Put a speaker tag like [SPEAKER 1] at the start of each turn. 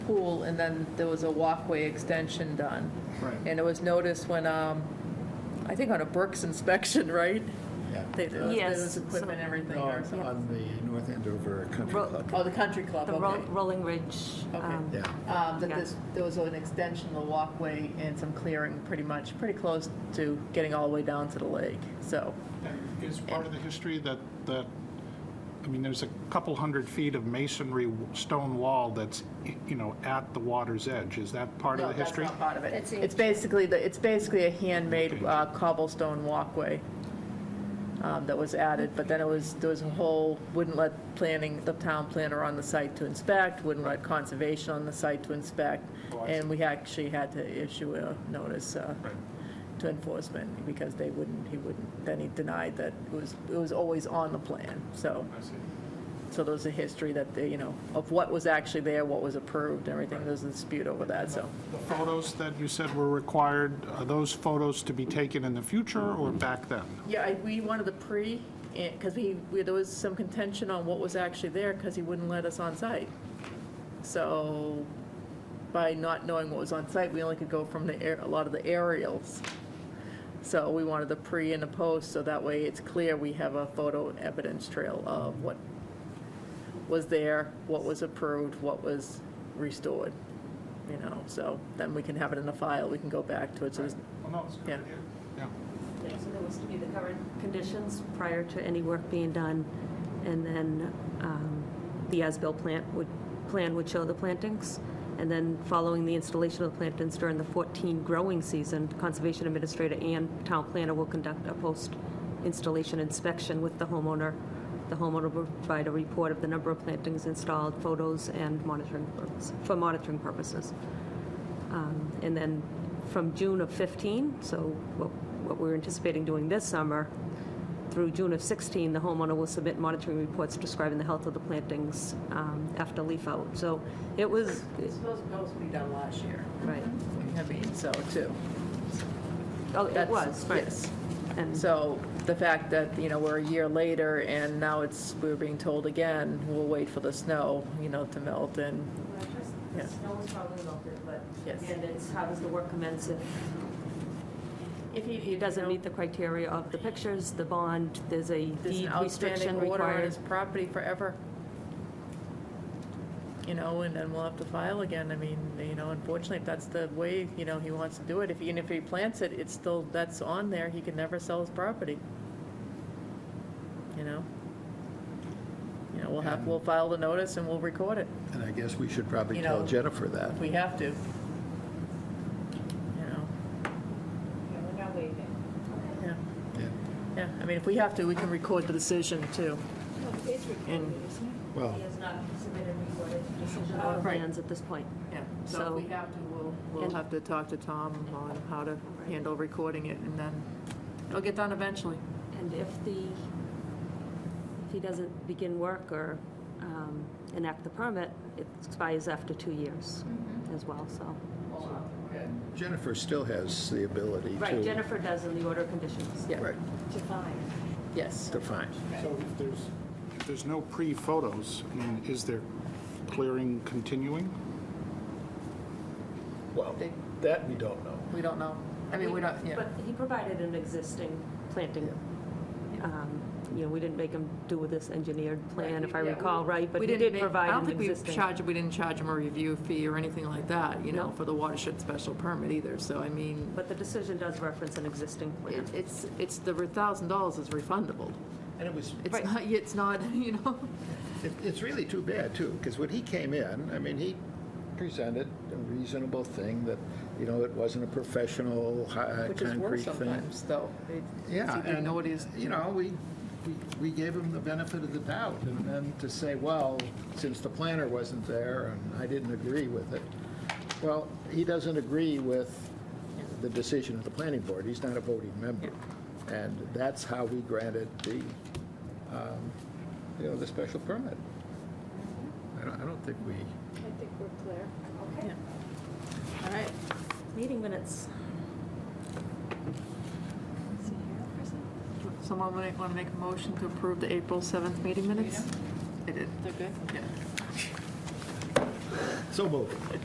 [SPEAKER 1] pool, and then there was a walkway extension done.
[SPEAKER 2] Right.
[SPEAKER 1] And it was noticed when, um, I think on a Brooks inspection, right?
[SPEAKER 2] Yeah.
[SPEAKER 1] They- There was- there
[SPEAKER 3] Yes,
[SPEAKER 1] was equipment and everything or
[SPEAKER 2] On,
[SPEAKER 1] something.
[SPEAKER 2] on the North Andover Country
[SPEAKER 3] Ro-
[SPEAKER 2] Club.
[SPEAKER 1] Oh, the country club,
[SPEAKER 3] The Ro-
[SPEAKER 1] okay.
[SPEAKER 3] Rolling Ridge.
[SPEAKER 1] Okay.
[SPEAKER 3] um,
[SPEAKER 2] Yeah.
[SPEAKER 1] Um, That
[SPEAKER 3] Yeah.
[SPEAKER 1] this, there was an extension, of the walkway, and some clearing, pretty much, pretty close to getting all the way down to the lake, so.
[SPEAKER 4] And Is part of the history that, that, I mean, there's a couple hundred feet of masonry w- stone wall that's, y- you know, at the water's edge. Is that part of
[SPEAKER 1] No,
[SPEAKER 4] the history?
[SPEAKER 1] That's not part of it.
[SPEAKER 5] That's
[SPEAKER 1] It's basically, the it's basically a handmade uh, cobblestone walkway um, that was added, but then it was, there was a whole, wouldn't let planning, the town planner on the site to inspect, wouldn't let conservation on the site to inspect,
[SPEAKER 4] Oh, I see.
[SPEAKER 1] and we actually had to issue a notice uh,
[SPEAKER 4] Right.
[SPEAKER 1] to enforcement, because they wouldn't, he wouldn't, then he denied that it was, it was always on the plan, so.
[SPEAKER 4] I see.
[SPEAKER 1] So there's a history that, they, you know, of what was actually there, what was approved, and everything, there's a dispute over that, so.
[SPEAKER 4] The photos that you said were required, are those photos to be taken in the future or back then?
[SPEAKER 1] Yeah, I- we wanted the pre, because we, we- there was some contention on what was actually there, because he wouldn't let us on site. So by not knowing what was on site, we only could go from the air, a lot of the aerials. So we wanted the pre and the post, so that way it's clear we have a photo evidence trail of what was there, what was approved, what was restored, you know, so then we can have it in the file, we can go back to it, so there's
[SPEAKER 4] Well, no, it's
[SPEAKER 1] Yeah.
[SPEAKER 4] Yeah.
[SPEAKER 3] So there was to be the current conditions prior to any work being done, and then um, the as-built plant would, plan would show the plantings, and then following the installation of the plantings during the 14 growing season, Conservation Administrator and Town Planner will conduct a post-installation inspection with the homeowner. The homeowner will provide a report of the number of plantings installed, photos, and monitoring, purpose- for monitoring purposes. Um, And then from June of 15, so what what we're anticipating doing this summer, through June of 16, the homeowner will submit monitoring reports describing the health of the plantings um, after leaf out. So it was,
[SPEAKER 1] It's supposed, that was what we done last year.
[SPEAKER 3] right,
[SPEAKER 1] I mean, so too.
[SPEAKER 3] oh, it
[SPEAKER 1] That's-
[SPEAKER 3] was, right.
[SPEAKER 1] yes.
[SPEAKER 3] And
[SPEAKER 1] So the fact that, you know, we're a year later and now it's, we're being told again, we'll wait for the snow, you know, to melt and, Yeah.
[SPEAKER 3] The snow was probably melted, but,
[SPEAKER 1] Yes.
[SPEAKER 3] and it's, how does the work commence if? If he, he doesn't meet the criteria of the pictures, the bond, there's a
[SPEAKER 1] there's an
[SPEAKER 3] deed
[SPEAKER 1] outstanding
[SPEAKER 3] restriction
[SPEAKER 1] order on
[SPEAKER 3] required.
[SPEAKER 1] his property forever. You know, and then we'll have to file again. I mean, you know, unfortunately, if that's the way, you know, he wants to do it, if, even if he plants it, it's still, that's on there, he can never sell his property. You know? You know, we'll have, we'll file the notice and we'll record it.
[SPEAKER 2] And I guess we should probably
[SPEAKER 1] You
[SPEAKER 2] tell
[SPEAKER 1] know-
[SPEAKER 2] Jennifer that.
[SPEAKER 1] if we have to. You know,
[SPEAKER 5] we're not waiving.
[SPEAKER 1] yeah,
[SPEAKER 2] Yeah.
[SPEAKER 1] yeah, I mean, if we have to, we can record the decision too.
[SPEAKER 5] It's recorded,
[SPEAKER 1] And-
[SPEAKER 5] isn't it?
[SPEAKER 2] Well,
[SPEAKER 3] He has not submitted recorded decision or
[SPEAKER 1] Uh, Right.
[SPEAKER 3] plans at this point.
[SPEAKER 1] Yeah,
[SPEAKER 3] So-
[SPEAKER 1] so if we have to, we'll, we'll
[SPEAKER 3] And-
[SPEAKER 1] have to talk to Tom on how to handle recording it and then it'll get done eventually.
[SPEAKER 3] And if the, if he doesn't begin work or um, enact the permit, it expires after two years
[SPEAKER 1] Mm-hmm.
[SPEAKER 3] as well, so.
[SPEAKER 2] Jennifer still has the ability to.
[SPEAKER 3] Right, Jennifer does in the order of conditions.
[SPEAKER 1] Yeah.
[SPEAKER 2] Right,
[SPEAKER 1] Yes.
[SPEAKER 2] to find.
[SPEAKER 4] So if there's, if there's no pre-photos, I mean, is there clearing continuing?
[SPEAKER 2] Well,
[SPEAKER 1] They-
[SPEAKER 2] that we don't know.
[SPEAKER 1] We don't know. I mean, we don't, yeah.
[SPEAKER 3] But he provided an existing planting, um, you know, we didn't make him do this engineered plan, if I
[SPEAKER 1] Yeah, we-
[SPEAKER 3] recall right, but
[SPEAKER 1] We
[SPEAKER 3] he
[SPEAKER 1] didn't
[SPEAKER 3] did
[SPEAKER 1] make-
[SPEAKER 3] provide
[SPEAKER 1] I don't
[SPEAKER 3] an
[SPEAKER 1] think we
[SPEAKER 3] existing.
[SPEAKER 1] charged, we didn't charge him a review fee or anything like that, you know,
[SPEAKER 3] No.
[SPEAKER 1] for the watershed special permit either, so I mean,
[SPEAKER 3] But the decision does reference an existing plan.
[SPEAKER 1] it- it's, it's, the thousand dollars is refundable.
[SPEAKER 2] And it was,
[SPEAKER 1] It's
[SPEAKER 3] Right.
[SPEAKER 1] not, it's not, you know?
[SPEAKER 2] it- it's really too bad, too, because when he came in, I mean, he presented a reasonable thing that, you know, it wasn't a professional, hi- concrete
[SPEAKER 1] Which
[SPEAKER 2] thing.
[SPEAKER 1] is worse sometimes, though. It-
[SPEAKER 2] Yeah.
[SPEAKER 1] He didn't
[SPEAKER 2] and,
[SPEAKER 1] know what he's,
[SPEAKER 2] You know, we, we- we gave him the benefit of the doubt, and then to say, well, since the planner wasn't there and I didn't agree with it, well, he doesn't agree with the decision of the planning board, he's not a voting member. And that's how we granted the, um, you know, the special permit. I don't, I don't think we,
[SPEAKER 5] I think we're clear.
[SPEAKER 1] yeah. All right,
[SPEAKER 3] Meeting minutes.
[SPEAKER 1] someone want to make a motion to approve the April 7th meeting minutes? I did. Okay. Yeah.
[SPEAKER 2] so moved.